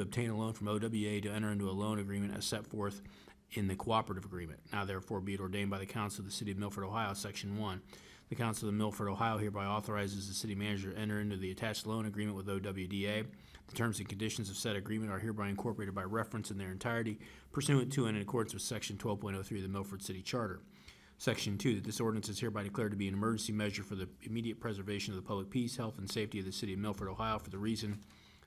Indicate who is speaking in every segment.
Speaker 1: to obtain a loan from OWA to enter into a loan agreement as set forth in the cooperative agreement. Now therefore be it ordained by the Council of the City of Milford, Ohio, Section 1. The Council of Milford, Ohio hereby authorizes the city manager to enter into the attached loan agreement with OWDA. The terms and conditions of said agreement are hereby incorporated by reference in their entirety pursuant to and in accordance with Section 12.03 of the Milford City Charter. Section two, that this ordinance is hereby declared to be an emergency measure for the immediate preservation of the public peace, health, and safety of the city of Milford, Ohio, for the reason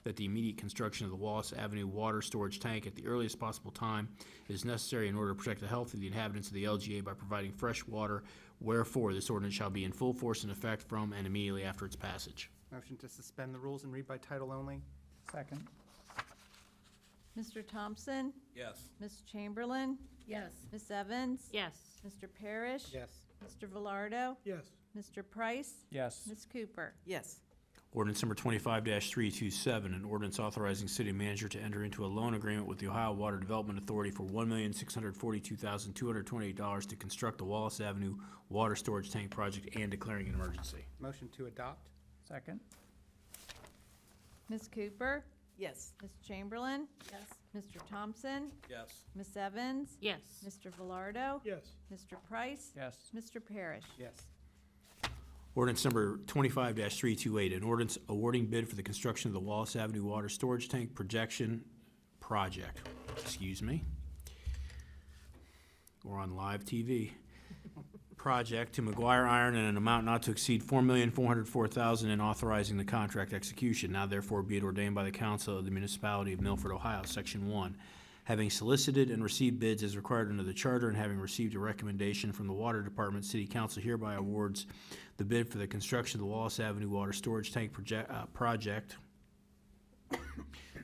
Speaker 1: that the immediate construction of the Wallace Avenue water storage tank at the earliest possible time is necessary in order to protect the health of the inhabitants of the LGA by providing fresh water. Wherefore, this ordinance shall be in full force and effect from and immediately after its passage.
Speaker 2: Motion to suspend the rules and read by title only?
Speaker 3: second,
Speaker 4: Mr. Thompson?
Speaker 5: yes,
Speaker 4: Ms. Chamberlain?
Speaker 6: yes,
Speaker 4: Ms. Evans?
Speaker 7: yes,
Speaker 4: Mr. Parrish?
Speaker 2: Yes.
Speaker 4: Mr. Velardo?
Speaker 8: yes,
Speaker 4: Mr. Price?
Speaker 3: yes,
Speaker 4: Ms. Cooper?
Speaker 9: yes,
Speaker 1: Ordinance number twenty-five three-two-seven, an ordinance authorizing city manager to enter into a loan agreement with the Ohio Water Development Authority for one million six hundred forty-two thousand two hundred twenty-eight dollars to construct the Wallace Avenue Water Storage Tank Project and declaring an emergency.
Speaker 2: Motion to adopt?
Speaker 3: second,
Speaker 4: Ms. Cooper?
Speaker 9: yes,
Speaker 4: Ms. Chamberlain?
Speaker 6: yes,
Speaker 4: Mr. Thompson?
Speaker 5: yes,
Speaker 4: Ms. Evans?
Speaker 7: yes,
Speaker 4: Mr. Velardo?
Speaker 8: yes,
Speaker 4: Mr. Price?
Speaker 3: yes,
Speaker 4: Mr. Parrish?
Speaker 2: Yes.
Speaker 1: Ordinance number twenty-five three-two-eight, an ordinance awarding bid for the construction of the Wallace Avenue Water Storage Tank Projection Project. Excuse me. We're on live TV. Project to McGuire Iron in an amount not to exceed four million four hundred four thousand and authorizing the contract execution. Now therefore be it ordained by the council of the municipality of Milford, Ohio, section one. Having solicited and received bids as required under the charter and having received a recommendation from the water department, city council hereby awards the bid for the construction of the Wallace Avenue Water Storage Tank Project, uh, project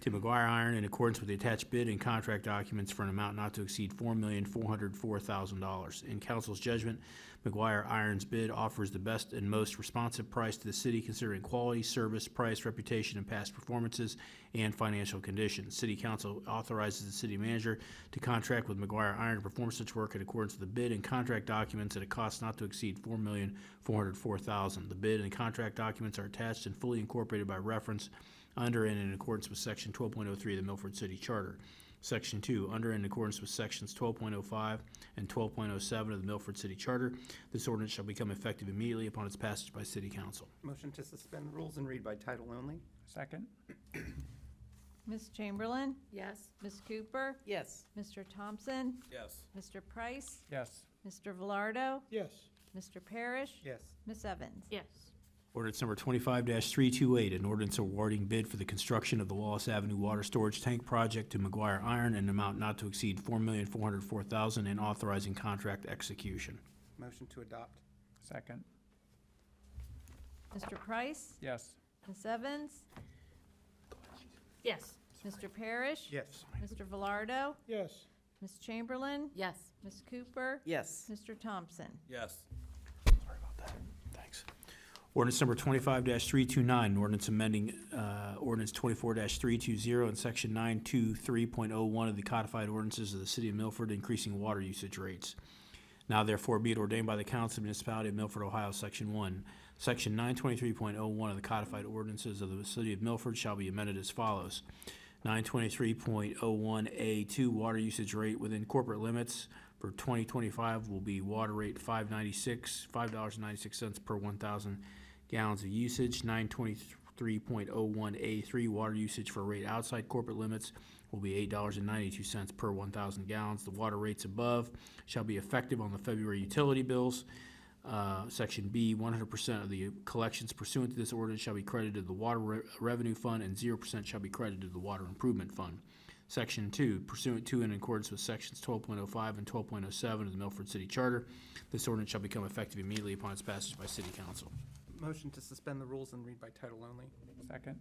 Speaker 1: to McGuire Iron in accordance with the attached bid and contract documents for an amount not to exceed four million, four hundred four thousand dollars. In council's judgment, McGuire Iron's bid offers the best and most responsive price to the city considering quality, service, price, reputation, and past performances and financial condition. City council authorizes the city manager to contract with McGuire Iron to perform such work in accordance with the bid and contract documents at a cost not to exceed four million, four hundred four thousand. The bid and contract documents are attached and fully incorporated by reference under and in accordance with Section 12.03 of the Milford City Charter. Section 2, under and in accordance with Sections 12.05 and 12.07 of the Milford City Charter, this ordinance shall become effective immediately upon its passage by City Council.
Speaker 2: Motion to suspend the rules and read by title only?
Speaker 3: second,
Speaker 4: Ms. Chamberlain?
Speaker 6: yes,
Speaker 4: Ms. Cooper?
Speaker 9: yes,
Speaker 4: Mr. Thompson?
Speaker 5: yes,
Speaker 4: Mr. Price?
Speaker 3: yes,
Speaker 4: Mr. Velardo?
Speaker 8: yes,
Speaker 4: Mr. Parrish?
Speaker 2: Yes.
Speaker 4: Ms. Evans?
Speaker 7: yes,
Speaker 1: Ordinance number twenty-five three-two-eight, an ordinance awarding bid for the construction of the Wallace Avenue Water Storage Tank Project to McGuire Iron in an amount not to exceed four million, four hundred four thousand, and authorizing contract execution.
Speaker 2: Motion to adopt?
Speaker 3: second,
Speaker 4: Mr. Price?
Speaker 3: yes,
Speaker 4: Ms. Evans?
Speaker 7: yes,
Speaker 4: Mr. Parrish?
Speaker 2: Yes.
Speaker 4: Mr. Velardo?
Speaker 8: yes,
Speaker 4: Ms. Chamberlain?
Speaker 6: yes,
Speaker 4: Ms. Cooper?
Speaker 9: yes,
Speaker 4: Mr. Thompson?
Speaker 5: yes,
Speaker 1: Sorry about that. Thanks. Ordinance number twenty-five three-two-nine, ordinance amending, uh, ordinance twenty-four three-two-zero and section nine-two-three-point-oh-one oh of the codified ordinances of the city of Milford, increasing water usage rates. Now therefore be it ordained by the Council of the Municipality of Milford, Ohio, section one. Section nine twenty-three point oh one of the codified ordinances of the city of Milford shall be amended as follows. Nine twenty-three point oh one A two, water usage rate within corporate limits for twenty twenty-five will be water rate five ninety-six, five dollars and ninety-six cents per one thousand gallons of usage. Nine twenty-three point oh one A three, water usage for rate outside corporate limits will be eight dollars and ninety-two cents per one thousand gallons. The water rates above shall be effective on the February utility bills. Uh, Section B, one hundred percent of the collections pursuant to this ordinance shall be credited to the Water Re- Revenue Fund, and zero percent shall be credited to the Water Improvement Fund. Section two, pursuant to and in accordance with sections twelve point oh five and twelve point oh seven of the Milford City Charter, this ordinance shall become effective immediately upon its passage by City Council.
Speaker 2: Motion to suspend the rules and read by title only?
Speaker 3: second,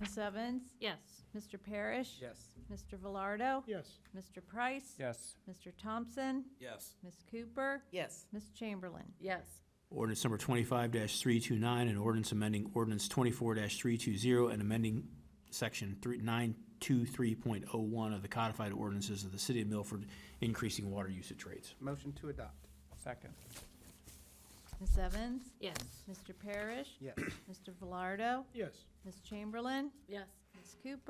Speaker 4: Ms. Evans?
Speaker 7: yes,
Speaker 4: Mr. Parrish?
Speaker 2: Yes.
Speaker 4: Mr. Velardo?
Speaker 8: yes,
Speaker 4: Mr. Price?
Speaker 3: yes,
Speaker 4: Mr. Thompson?
Speaker 5: yes,
Speaker 4: Ms. Cooper?
Speaker 9: yes,
Speaker 4: Ms. Chamberlain?
Speaker 6: yes,
Speaker 1: Ordinance number twenty-five three-two-nine, an ordinance amending ordinance twenty-four three-two-zero and amending section three, nine-two-three-point-oh-one oh of the codified ordinances of the city of Milford, increasing water usage rates.
Speaker 2: Motion to adopt?
Speaker 3: second,
Speaker 4: Ms. Evans?
Speaker 7: yes,
Speaker 4: Mr. Parrish?
Speaker 2: Yes.
Speaker 4: Mr. Velardo?
Speaker 8: yes,
Speaker 4: Ms. Chamberlain?
Speaker 6: yes,
Speaker 4: Ms. Cooper.